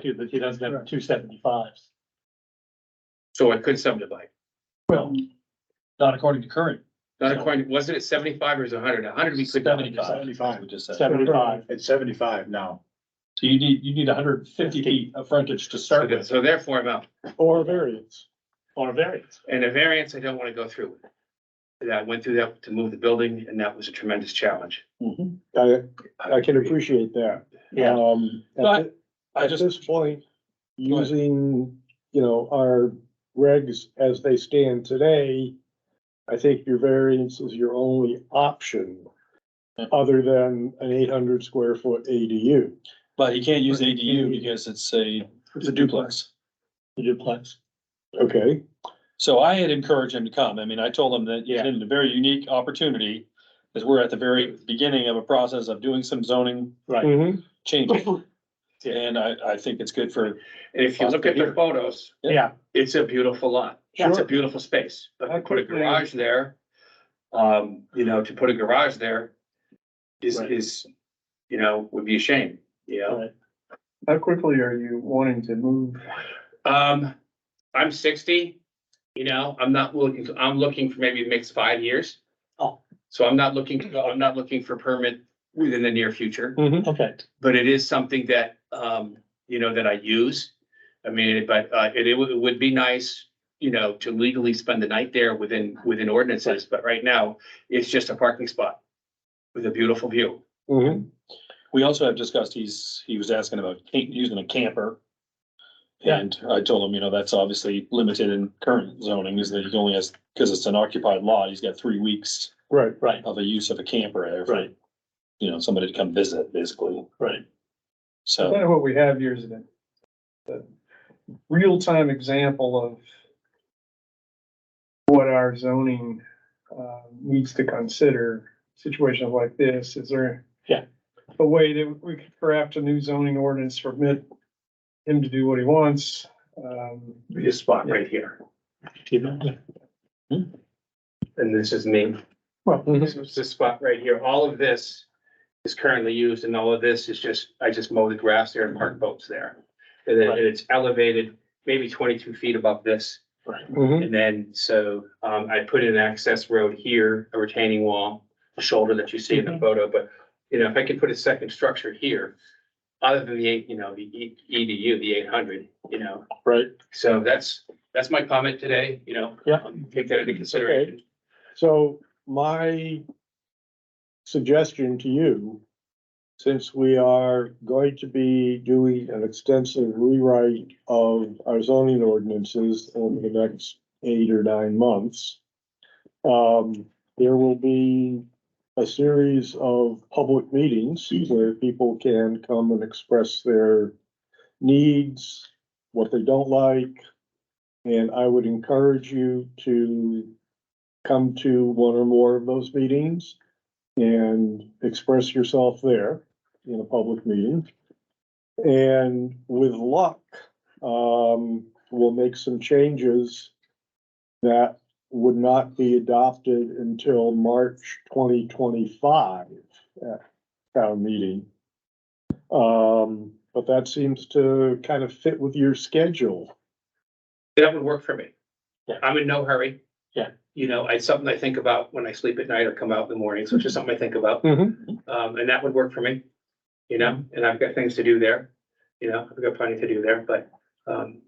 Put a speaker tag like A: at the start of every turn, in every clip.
A: too, that he doesn't have two seventy-fives.
B: So it could subdivide.
A: Well, not according to current.
B: Not according, wasn't it seventy-five or is it hundred? hundred we could.
A: Seventy-five.
C: Seventy-five, we just said.
A: Seventy-five.
C: It's seventy-five now.
A: So you need, you need hundred and fifty feet of frontage to
B: So
A: start
B: th-
A: with.
B: so therefore, I'm out.
A: Or variance. Or variance.
B: And a variance, I don't want to go through. That I went through that to move the building and that was a tremendous challenge.
D: I, I can appreciate that.
A: Yeah.
D: Um,
A: No, I-
D: at, thi-
A: I
D: at
A: just-
D: this point,
A: Go ahead.
D: using, you know, our regs as they stand today, I think your variance is your only option
A: Hmm.
E: Yeah.
D: other than an eight hundred square foot ADU.
E: But you can't use ADU because it's a, it's a duplex.
A: The duplex.
D: Okay,
E: So I had encouraged him to come. I mean, I told him that
A: Yeah.
E: it's a very unique opportunity. Cause we're at the very beginning of a process of doing some zoning
A: Right.
C: Mm-hmm.
D: Mhm.
E: changes. And I, I think it's good for,
B: And if you look at the
E: Here.
B: photos,
A: Yeah.
B: it's a beautiful lot. It's a beautiful space. But to put a garage there, um, you know, to put a garage there is,
A: Right.
B: is, you know, would be a shame, you know?
C: How quickly are you wanting to move?
B: Um, I'm sixty, you know, I'm not looking, I'm looking for maybe the next five years.
A: Oh.
B: So I'm not looking, I'm not looking for permit within the near future,
A: Okay.
B: but it is something that, um, you know, that I use. I mean, but, uh, it, it would, it would be nice, you know, to legally spend the night there within, within ordinances, but right now, it's just a parking spot with a beautiful view.
D: Mhm.
E: we also have discussed, he's, he was asking about ca- using a camper.
A: Yeah.
E: And I told him, you know, that's obviously limited in current zoning is that he only has, cause it's an occupied lot, he's got three weeks
D: right.
A: Right,
E: of a use of a camper. there for,
A: Right.
E: You know, somebody to come visit basically.
A: right.
E: So.
C: Kind of what we have here is a, a real-time example of what our zoning, uh, needs to consider, situations like this, is there?
A: Yeah.
C: A way that we could craft a new zoning ordinance, to permit him to do what he wants, um,
B: Be a spot right here. And this is me.
C: Well,
B: This is the spot right here. All of this is currently used and all of this is just, I just mow the grass there and park boats there. And then
A: Right.
B: it's elevated maybe twenty-two feet above this.
A: Right.
D: Mhm.
B: And then, so, um, I put in an access road here, a retaining wall, a shoulder that you see in the
A: Mm-hmm.
B: photo, but, you know, if I could put a second structure here, other than the eight, you know, the E- EDU, the eight hundred, you know.
A: Right.
B: So that's, that's my comment today, you know.
A: Yeah.
B: um, Take that into consideration.
D: So my suggestion to you, since we are going to be doing an extensive rewrite of our zoning ordinances over the next eight or nine months, um, there will be a series of public meetings where people can come and express their needs, what they don't like. And I would encourage you to come to one or more of those meetings and express yourself there in a public meeting. And with luck, um, we'll make some changes that would not be adopted until March twenty twenty-five at town meeting. Um, but that seems to kind of fit with your schedule.
B: That would work for me.
A: Yeah.
B: I'm in no hurry.
A: Yeah.
B: You know, it's something I think about when I sleep at night or come out in the morning, so it's just something I think about.
E: Mm-hmm.
B: Um, and that would work for me, you know,
A: Mm-hmm.
B: and I've got things to do there, you know, I've got plenty to do there, but, um,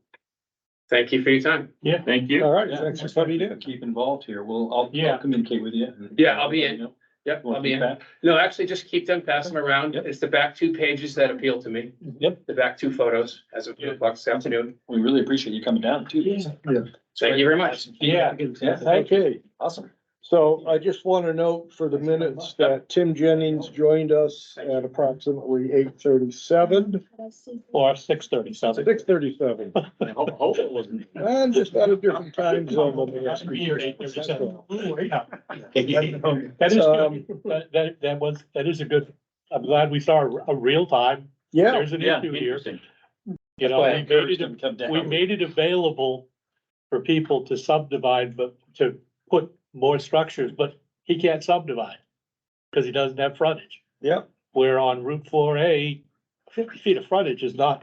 B: thank you for your time.
A: Yeah.
B: Thank
D: All right,
E: Yeah,
D: thanks for
E: we'll
D: coming in.
E: Keep involved here. We'll, I'll,
A: Yeah.
E: I'll communicate with you. and-
B: Yeah, I'll be in. Yep,
E: We'll
B: I'll be
E: keep
B: in.
E: that.
B: No, actually, just keep them, pass them around.
E: Yep.
B: It's the back two pages that appeal to me.
E: Yep.
B: The back two photos as of two o'clock this afternoon.
E: We really appreciate you coming down too.
B: Thank you very much.
A: Yeah.
E: Yeah,
D: Okay.
E: awesome.
D: So I just want to note for the minutes that Tim Jennings joined us at approximately eight thirty-seven,
A: Or six thirty, sounds like.
D: six thirty-seven.
B: Hope it wasn't.
D: And just at a different time zone. than the rest of
A: Year eight,
D: us.
A: there's
D: That's
A: a-
D: all.
A: Yeah. That is
D: Um,
A: good. That, that, that was, that is a good, I'm glad we saw a- a real time.
D: Yeah,
A: There's an
E: Yeah,
A: issue here.
E: interesting.
A: You know,
E: Well, I
A: we made
E: encouraged
A: it,
E: him to come down.
A: we made it available for people to subdivide, but to put more structures, but he can't subdivide. Cause he doesn't have frontage.
D: Yep.
A: Where on Route four A, fifty feet of frontage is not